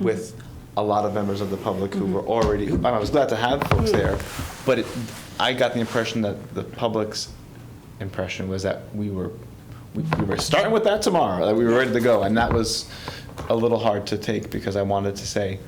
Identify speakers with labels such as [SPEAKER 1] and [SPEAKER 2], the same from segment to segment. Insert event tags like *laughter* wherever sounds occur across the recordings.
[SPEAKER 1] with a lot of members of the public who were already, and I was glad to have folks there, but it, I got the impression that the public's impression was that we were, we we were starting with that tomorrow, that we were ready to go, and that was a little hard to take, because I wanted to say,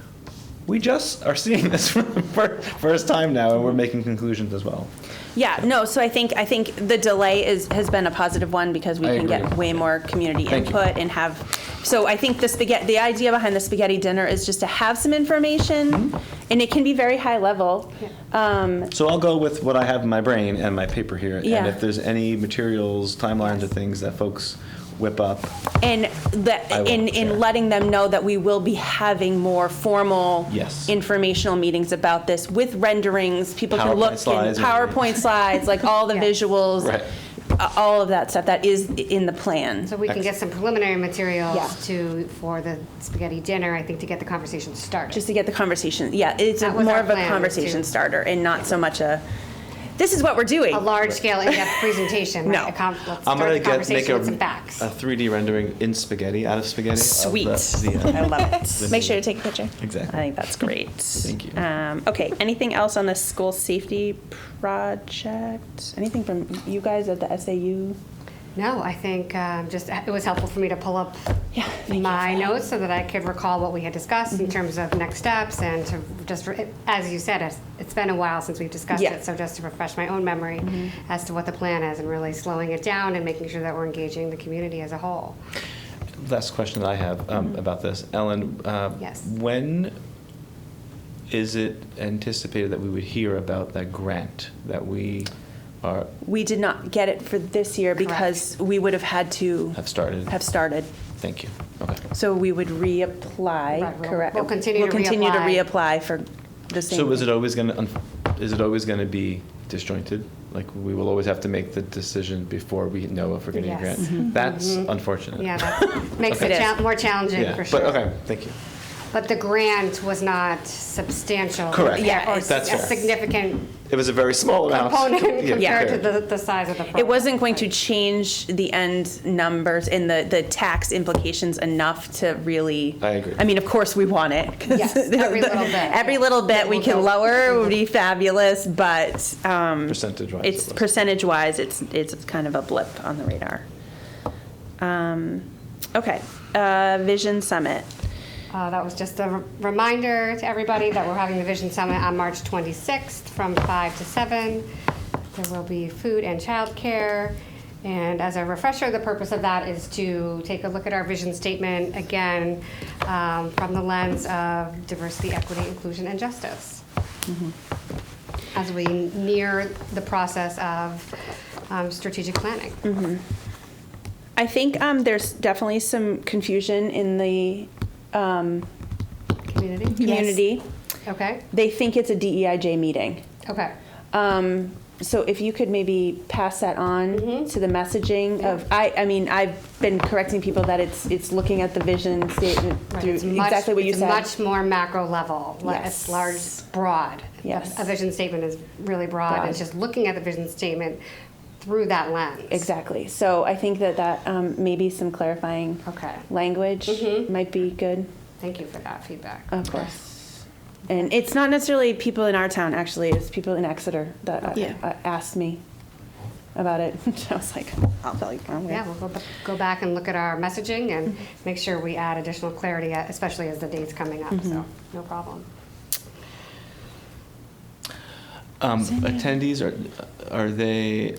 [SPEAKER 1] we just are seeing this *laughs* for the fir- first time now, and we're making conclusions as well.
[SPEAKER 2] Yeah, no, so I think, I think the delay is, has been a positive one because we
[SPEAKER 1] I
[SPEAKER 2] can get
[SPEAKER 1] agree.
[SPEAKER 2] way more community
[SPEAKER 1] Thank you.
[SPEAKER 2] input and have, so I think the spaghetti, the idea behind the spaghetti dinner is just to have some information,
[SPEAKER 1] Mm-hmm.
[SPEAKER 2] and it can be very high level. Um,
[SPEAKER 1] So I'll go with what I have in my brain and my paper here, and
[SPEAKER 2] Yeah.
[SPEAKER 1] if there's any materials, timelines, or things that folks whip up,
[SPEAKER 2] And that,
[SPEAKER 1] I will
[SPEAKER 2] in,
[SPEAKER 1] share.
[SPEAKER 2] in letting them know that we will be having more formal.
[SPEAKER 1] Yes.
[SPEAKER 2] Informational meetings about this with renderings, people can
[SPEAKER 1] PowerPoint
[SPEAKER 2] look. in
[SPEAKER 1] slides and-
[SPEAKER 2] PowerPoint slides, like all the visuals.
[SPEAKER 1] Right.
[SPEAKER 2] uh, All of that stuff, that is in the plan.
[SPEAKER 3] So we can get some preliminary
[SPEAKER 2] Yeah.
[SPEAKER 3] materials to, for the spaghetti dinner, I think, to get the conversation started.
[SPEAKER 2] just to get the conversation, yeah, it's a-
[SPEAKER 3] That was
[SPEAKER 2] more
[SPEAKER 3] our
[SPEAKER 2] of a
[SPEAKER 3] plan,
[SPEAKER 2] conversation
[SPEAKER 3] too.
[SPEAKER 2] starter and not so much a, this is what we're doing.
[SPEAKER 3] A large-scale,
[SPEAKER 1] *laughs*
[SPEAKER 3] in-depth presentation,
[SPEAKER 2] No.
[SPEAKER 3] right? A com- Let's
[SPEAKER 1] I'm
[SPEAKER 3] start
[SPEAKER 1] gonna
[SPEAKER 3] the
[SPEAKER 1] get make
[SPEAKER 3] conversation
[SPEAKER 1] a,
[SPEAKER 3] with some facts.
[SPEAKER 1] a 3D rendering in spaghetti out of spaghetti. of the-
[SPEAKER 2] Sweet.
[SPEAKER 1] the,
[SPEAKER 2] I
[SPEAKER 1] uh,
[SPEAKER 2] love it.
[SPEAKER 4] Make sure to take a picture.
[SPEAKER 2] I
[SPEAKER 1] exactly.
[SPEAKER 2] think that's great. Thank
[SPEAKER 1] you.
[SPEAKER 2] Um, okay, anything else on the school safety project? Anything from you guys at the SAU?
[SPEAKER 3] No, I think um, just, it was helpful for me to pull up
[SPEAKER 2] Yeah, thank you Mm-hmm.
[SPEAKER 3] my
[SPEAKER 2] for that.
[SPEAKER 3] notes so that I could recall what we had discussed in terms of next steps and to just, re- as you said, it's- it's been a while since we've discussed
[SPEAKER 2] Yeah. Mm-hmm.
[SPEAKER 3] it. So just to refresh my own memory as to what the plan is and really slowing it down and making sure that we're engaging the community as a whole.
[SPEAKER 1] uh, Last question that I have um, about this, Ellen. Uh,
[SPEAKER 3] Mm-hmm. Yes.
[SPEAKER 1] When is it anticipated that we would hear about that grant that we are
[SPEAKER 2] We did not get it for this year
[SPEAKER 3] Correct.
[SPEAKER 2] because we would have had to.
[SPEAKER 1] Have started.
[SPEAKER 2] Have started.
[SPEAKER 1] Thank you. Okay.
[SPEAKER 2] So we would
[SPEAKER 3] Right,
[SPEAKER 2] reapply,
[SPEAKER 3] we'll-
[SPEAKER 2] correct?
[SPEAKER 3] we'll continue to
[SPEAKER 2] We'll continue to
[SPEAKER 3] reapply.
[SPEAKER 2] reapply for the same.
[SPEAKER 1] So is it always going to is it always going to be disjointed? Like we will always have to make the decision before we know if we're getting
[SPEAKER 3] Yes. Mm-hmm.
[SPEAKER 1] a grant. That's unfortunate. *laughs*
[SPEAKER 3] Yeah, that makes it
[SPEAKER 2] Okay.
[SPEAKER 3] cha- more challenging
[SPEAKER 1] Yeah,
[SPEAKER 3] for sure.
[SPEAKER 1] But okay, thank you.
[SPEAKER 3] But the grant was not substantial.
[SPEAKER 1] Correct.
[SPEAKER 2] Yeah,
[SPEAKER 3] Or
[SPEAKER 2] it's-
[SPEAKER 1] That's
[SPEAKER 3] a
[SPEAKER 1] fair.
[SPEAKER 3] significant
[SPEAKER 1] It was a very small amount.
[SPEAKER 3] component
[SPEAKER 1] Yeah,
[SPEAKER 3] compared to
[SPEAKER 1] fair.
[SPEAKER 3] the, the size of the program.
[SPEAKER 2] It wasn't going to change the end numbers and the, the tax implications enough to really.
[SPEAKER 1] I agree.
[SPEAKER 2] I mean, of course, we want it. *laughs* 'cause
[SPEAKER 3] Yes, every little bit.
[SPEAKER 2] *laughs* Every little bit we can
[SPEAKER 3] Little bit.
[SPEAKER 2] lower would be fabulous, but um,
[SPEAKER 1] Percentage-wise, it
[SPEAKER 2] It's
[SPEAKER 1] was.
[SPEAKER 2] percentage-wise, it's, it's kind of a blip on the radar. Um, Okay, uh, Vision Summit.
[SPEAKER 3] Uh, That was just a r- reminder to everybody that we're having the Vision Summit on March 26th from 5 to 7. There will be food and childcare. And as a refresher, the purpose of that is to take a look at our vision statement again um, from the lens of diversity, equity, inclusion, and justice. As we near the process of um, strategic planning.
[SPEAKER 2] I think um, there's definitely some confusion in the um,
[SPEAKER 3] Community?
[SPEAKER 2] community.
[SPEAKER 3] Okay,
[SPEAKER 2] They think it's a DEIJ meeting.
[SPEAKER 3] okay.
[SPEAKER 2] Um, so if you could maybe pass that on
[SPEAKER 3] Mm-hmm.
[SPEAKER 2] to the messaging of, I, I mean, I've been correcting people that it's, it's looking at the vision statement
[SPEAKER 3] Right,
[SPEAKER 2] through
[SPEAKER 3] it's much-
[SPEAKER 2] exactly what you
[SPEAKER 3] it's
[SPEAKER 2] said.
[SPEAKER 3] Much more macro level. like,
[SPEAKER 2] Yes.
[SPEAKER 3] It's large, broad.
[SPEAKER 2] Yes.
[SPEAKER 3] A vision statement is really broad.
[SPEAKER 2] Broad.
[SPEAKER 3] It's just looking at the vision statement through that lens.
[SPEAKER 2] Exactly. So I think that that um, maybe some clarifying
[SPEAKER 3] Okay.
[SPEAKER 2] language
[SPEAKER 3] Mm-hmm.
[SPEAKER 2] might be good.
[SPEAKER 3] Thank you for that feedback.
[SPEAKER 2] Of course. And it's not necessarily people in our town, actually, it's people in Exeter that uh,
[SPEAKER 4] Yeah.
[SPEAKER 2] uh, asked me about it. *laughs* I was like, I'll tell you. I'm
[SPEAKER 3] Yeah, we'll go, ba- go back and look at our messaging and make sure we add additional clarity, uh, especially as the date's coming up.
[SPEAKER 2] Mm-hmm.
[SPEAKER 3] So, no problem.
[SPEAKER 1] Um, attendees are are they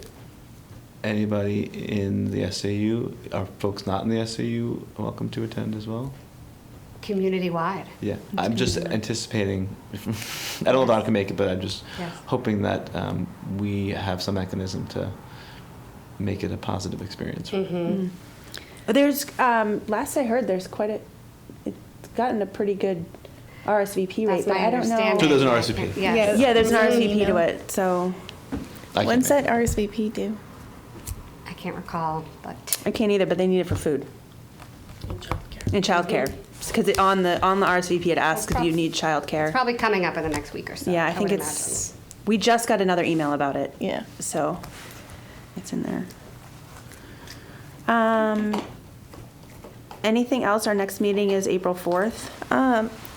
[SPEAKER 1] anybody in the SAU? Are folks not in the SAU welcome to attend as well?
[SPEAKER 3] Community wide.
[SPEAKER 1] Yeah, I'm just anticipating. *laughs* I don't know if I can make it, but I'm just
[SPEAKER 3] Yes.
[SPEAKER 1] hoping that um, we have some mechanism to make it a positive experience.
[SPEAKER 3] Mm-hmm.
[SPEAKER 2] There's, um, last I heard, there's quite a, it's gotten a pretty good RSVP rate,
[SPEAKER 3] That's
[SPEAKER 2] but
[SPEAKER 3] my
[SPEAKER 2] I don't know.
[SPEAKER 3] understanding.
[SPEAKER 1] So there's an RSVP.
[SPEAKER 3] Yes.
[SPEAKER 2] Yeah, there's an
[SPEAKER 4] Mhm.
[SPEAKER 2] RSVP to
[SPEAKER 4] Email.
[SPEAKER 2] it, so
[SPEAKER 1] I can
[SPEAKER 4] When's
[SPEAKER 1] make
[SPEAKER 4] that RSVP due?
[SPEAKER 3] I can't recall, but
[SPEAKER 2] I can't eat it, but they need it for food. And childcare, because it, on the, on the RSVP, it asks if you
[SPEAKER 3] prob-
[SPEAKER 2] need
[SPEAKER 3] it's
[SPEAKER 2] childcare.
[SPEAKER 3] probably coming up in the next week or so.
[SPEAKER 2] Yeah, I think
[SPEAKER 3] would
[SPEAKER 2] it's, we just got another email about it.
[SPEAKER 4] Yeah.
[SPEAKER 2] So it's in there. Um, anything else, our next meeting is April 4th. Um,